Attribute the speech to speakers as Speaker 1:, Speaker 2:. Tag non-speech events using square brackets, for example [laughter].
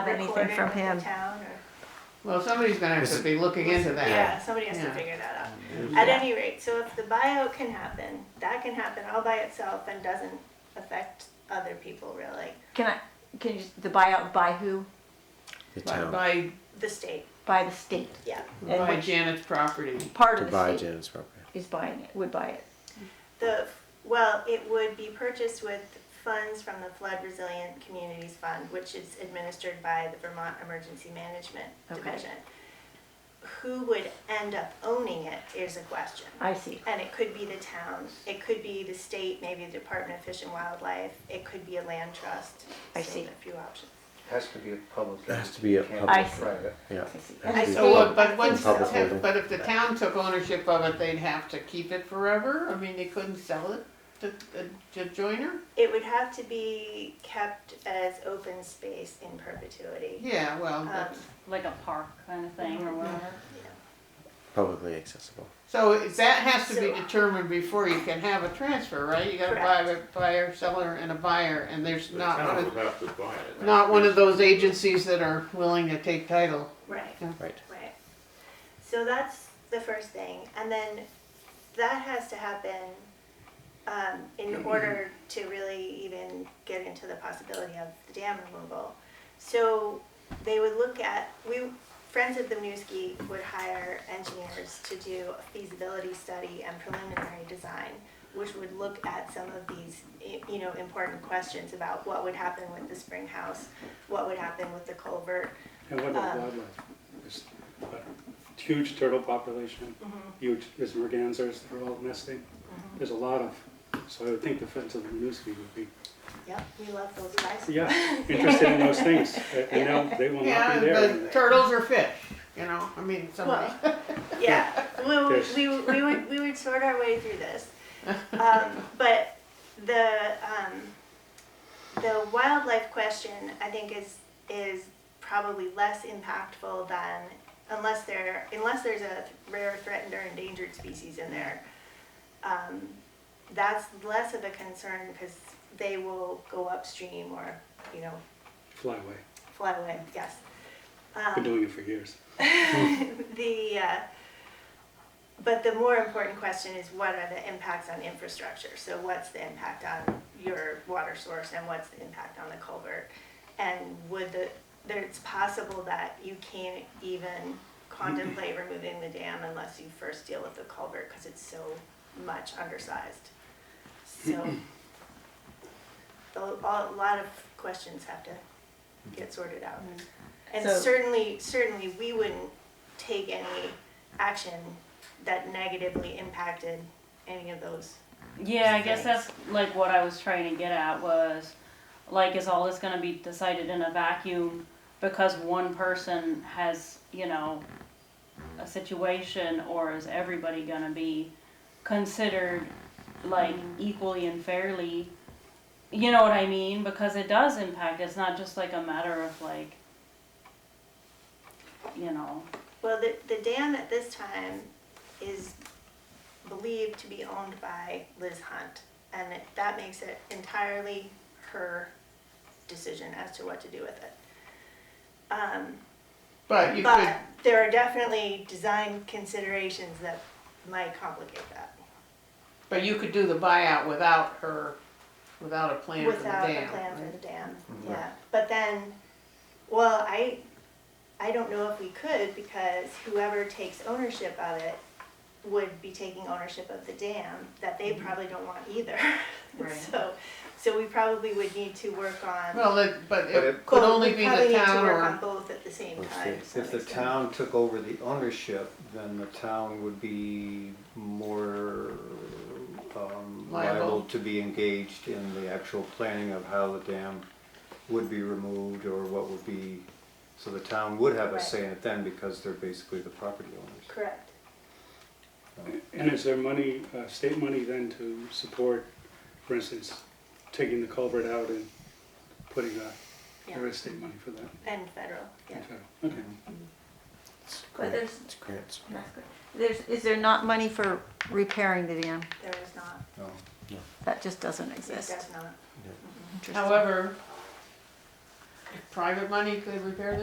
Speaker 1: have anything
Speaker 2: recorded
Speaker 1: from
Speaker 2: with the
Speaker 1: him.
Speaker 2: town or-
Speaker 3: Well, somebody's gonna have
Speaker 4: Is
Speaker 3: to
Speaker 4: it-
Speaker 3: be looking into that.
Speaker 2: Yeah, somebody has to
Speaker 3: Yeah.
Speaker 2: figure that out.
Speaker 1: Yeah.
Speaker 2: At any rate, so if the buyout can happen, that can happen all by itself and doesn't affect other people really,
Speaker 1: Can I, can you, the buyout by who?
Speaker 4: The
Speaker 3: By,
Speaker 4: town,
Speaker 3: by,
Speaker 2: the state,
Speaker 1: By the state.
Speaker 2: yeah.
Speaker 1: And
Speaker 3: by
Speaker 1: which
Speaker 3: Janet's property.
Speaker 1: part
Speaker 4: to
Speaker 1: of the
Speaker 4: buy
Speaker 1: state
Speaker 4: Janet's property.
Speaker 1: is buying it, would buy it?
Speaker 2: The, well, it would be purchased with funds from the Flood Resilient Communities Fund, which is administered by the Vermont Emergency Management
Speaker 1: Okay.
Speaker 2: Division. Who would end up owning it is a question.
Speaker 1: I see.
Speaker 2: And it could be the town, it could be the state, maybe the Department of Fish and Wildlife, it could be a land trust.
Speaker 1: I
Speaker 2: So
Speaker 1: see.
Speaker 2: A few options.
Speaker 5: Has to be a public.
Speaker 4: It has to be a
Speaker 5: Can't
Speaker 4: public-
Speaker 1: I see.
Speaker 5: private.
Speaker 4: Yeah.
Speaker 1: I see.
Speaker 4: Has to be
Speaker 3: So,
Speaker 4: public.
Speaker 3: what- but once,
Speaker 4: Public
Speaker 3: the ta-
Speaker 4: holding.
Speaker 3: but if the town took ownership of it, they'd have to keep it forever? I mean, they couldn't sell it to, uh, to Joyner?
Speaker 2: It would have to be kept as open space in perpetuity.
Speaker 3: Yeah, well,
Speaker 2: Um,
Speaker 3: that's,
Speaker 6: like a park kind of thing or whatever.
Speaker 4: Publicly accessible.
Speaker 3: so it- that has to be
Speaker 2: So-
Speaker 3: determined before you can have a transfer, right? You gotta buy a buyer, seller, and a buyer, and there's
Speaker 7: The
Speaker 3: not one
Speaker 7: town
Speaker 3: of,
Speaker 7: would have to buy it.
Speaker 3: not one of those agencies that are willing to take title.
Speaker 2: Right.
Speaker 4: Right.
Speaker 2: Right. So that's the first thing, and then that has to happen um, in order to really even get into the possibility of the dam removal. So they would look at we Friends of the Newski would hire engineers to do a feasibility study and preliminary design, which would look at some of these i- you know important questions about what would happen with the spring house, what would happen with the culvert,
Speaker 8: And what about
Speaker 2: Um,
Speaker 8: wildlife? There's a Huge turtle population,
Speaker 2: Mm-hmm.
Speaker 8: huge, there's mergansers, they're all nesting. There's a lot of, so I would think the Friends of the Newsfeed would be,
Speaker 2: Yep, we love those guys.
Speaker 8: yeah,
Speaker 2: [laughs]
Speaker 8: interested in those things. And- And now they will
Speaker 3: Yeah,
Speaker 8: not be there.
Speaker 3: but turtles are fish, you know, I mean, somebody.
Speaker 2: Well, yeah, we,
Speaker 8: Yes.
Speaker 2: we, we would, we would sort our way through this. Um, but the, um, the wildlife question, I think is, is probably less impactful than, unless there, unless there's a rare threatened or endangered species in there. Um, that's less of a concern because they will go upstream or, you know,
Speaker 8: Fly away.
Speaker 2: fly away, yes. Uh.
Speaker 8: Been doing it for years.
Speaker 2: [laughs] the uh, but the more important question is what are the impacts on infrastructure so what's the impact on your water source and what's the impact on the culvert and would the there, it's possible that you can't even contemplate removing the dam unless you first deal with the culvert because it's so much undersized so a, a lot of questions have to get sorted out and
Speaker 1: So-
Speaker 2: certainly certainly we wouldn't take any action that negatively impacted any of those.
Speaker 6: Yeah, I guess that's like what I was trying to get at was like is all this going to be decided in a vacuum because one person has, you know, a situation or is everybody going to be considered like equally and fairly? You know what I mean? Because it does impact. It's not just like a matter of like you know,
Speaker 2: Well, the, the dam at this time is believed to be owned by Liz Hunt, and it, that makes it entirely her decision as to what to do with it. Um,
Speaker 3: But you could,
Speaker 2: but there are definitely design considerations that might complicate that
Speaker 3: but you could do the buyout without her, without a plan for the
Speaker 2: without a
Speaker 3: dam. Mm-hmm.
Speaker 2: plan for the dam.
Speaker 5: Mhm.
Speaker 2: Yeah, but then, well, I, I don't know if we could because whoever takes ownership of it would be taking ownership of the dam that they
Speaker 3: Mm-hmm.
Speaker 2: probably don't want either. [laughs]
Speaker 6: Right.
Speaker 2: So, so we probably would need to work on,
Speaker 3: Well, it, but
Speaker 5: But
Speaker 3: it
Speaker 5: it-
Speaker 3: could
Speaker 2: well,
Speaker 3: only
Speaker 2: we
Speaker 3: be
Speaker 2: probably
Speaker 3: the
Speaker 2: need to
Speaker 3: town
Speaker 2: work on
Speaker 3: or,
Speaker 2: both at the same
Speaker 4: Or
Speaker 2: time.
Speaker 4: state.
Speaker 2: to some
Speaker 5: If the
Speaker 2: extent.
Speaker 5: town took over the ownership, then the town would be more um,
Speaker 3: Liable.
Speaker 5: liable to be engaged in the actual planning of how the dam would be removed or what would be, so the town would have a
Speaker 2: Right.
Speaker 5: say in it then because they're basically the property owners.
Speaker 2: Correct.
Speaker 8: And is there money, uh, state money then to support, for instance, taking the culvert out and putting, uh, there
Speaker 2: Yeah,
Speaker 8: is state money for that?
Speaker 2: and federal, yeah.
Speaker 8: Okay.
Speaker 4: It's
Speaker 1: But
Speaker 4: grants,
Speaker 1: there's-
Speaker 4: it's grants.
Speaker 1: That's good. There's, is there not money for repairing the dam?
Speaker 2: There is not,
Speaker 5: No.
Speaker 1: That just doesn't
Speaker 2: it does
Speaker 1: exist.
Speaker 2: not.
Speaker 1: Interesting.
Speaker 3: however, private money could repair this.